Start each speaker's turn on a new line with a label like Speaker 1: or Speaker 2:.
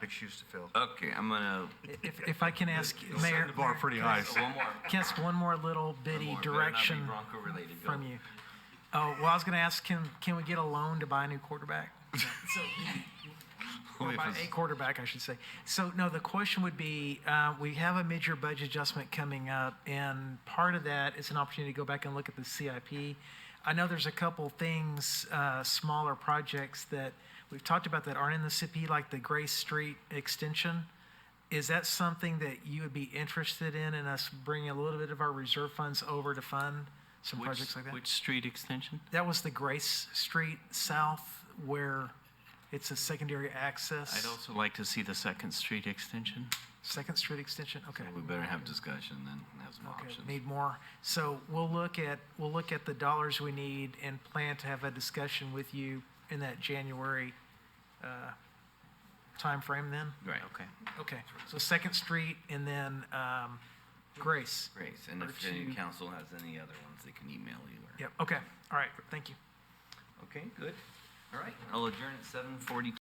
Speaker 1: big shoes to fill.
Speaker 2: Okay, I'm gonna.
Speaker 3: If, if I can ask, Mayor,
Speaker 4: Set the bar pretty high.
Speaker 2: One more.
Speaker 3: just one more little bitty
Speaker 2: One more. Better not be
Speaker 3: direction
Speaker 2: Bronco related. Go.
Speaker 3: from you. Oh, well, I was gonna ask, can, can we get a loan to buy a new quarterback?
Speaker 4: Only
Speaker 3: Or
Speaker 4: if
Speaker 3: by
Speaker 4: it's-
Speaker 3: a quarterback, I should say. So, no, the question would be, uh, we have a mid-year budget adjustment coming up, and part of that is an opportunity to go back and look at the CIP. I know there's a couple things, uh, smaller projects that we've talked about that aren't in the CIP, like the Grace Street extension. Is that something that you would be interested in, in us bringing a little bit of our reserve funds over to fund some
Speaker 5: Which-
Speaker 3: projects like that?
Speaker 5: Which street extension?
Speaker 3: That was the Grace Street South where it's a secondary access.
Speaker 5: I'd also like to see the second street extension.
Speaker 3: Second Street Extension, okay.
Speaker 2: We better have discussion then. Have some
Speaker 3: Okay,
Speaker 2: options.
Speaker 3: need more. So we'll look at, we'll look at the dollars we need and plan to have a discussion with you in that January uh, timeframe then?
Speaker 2: Right.
Speaker 5: Okay.
Speaker 3: Okay, so Second Street and then um, Grace.
Speaker 2: Great. And if
Speaker 3: Or
Speaker 2: any
Speaker 3: two.
Speaker 2: council has any other ones, they can email you. Or...
Speaker 3: Yep, okay, all right, thank you.
Speaker 2: Okay. Good. All right. I'll adjourn at 7:42.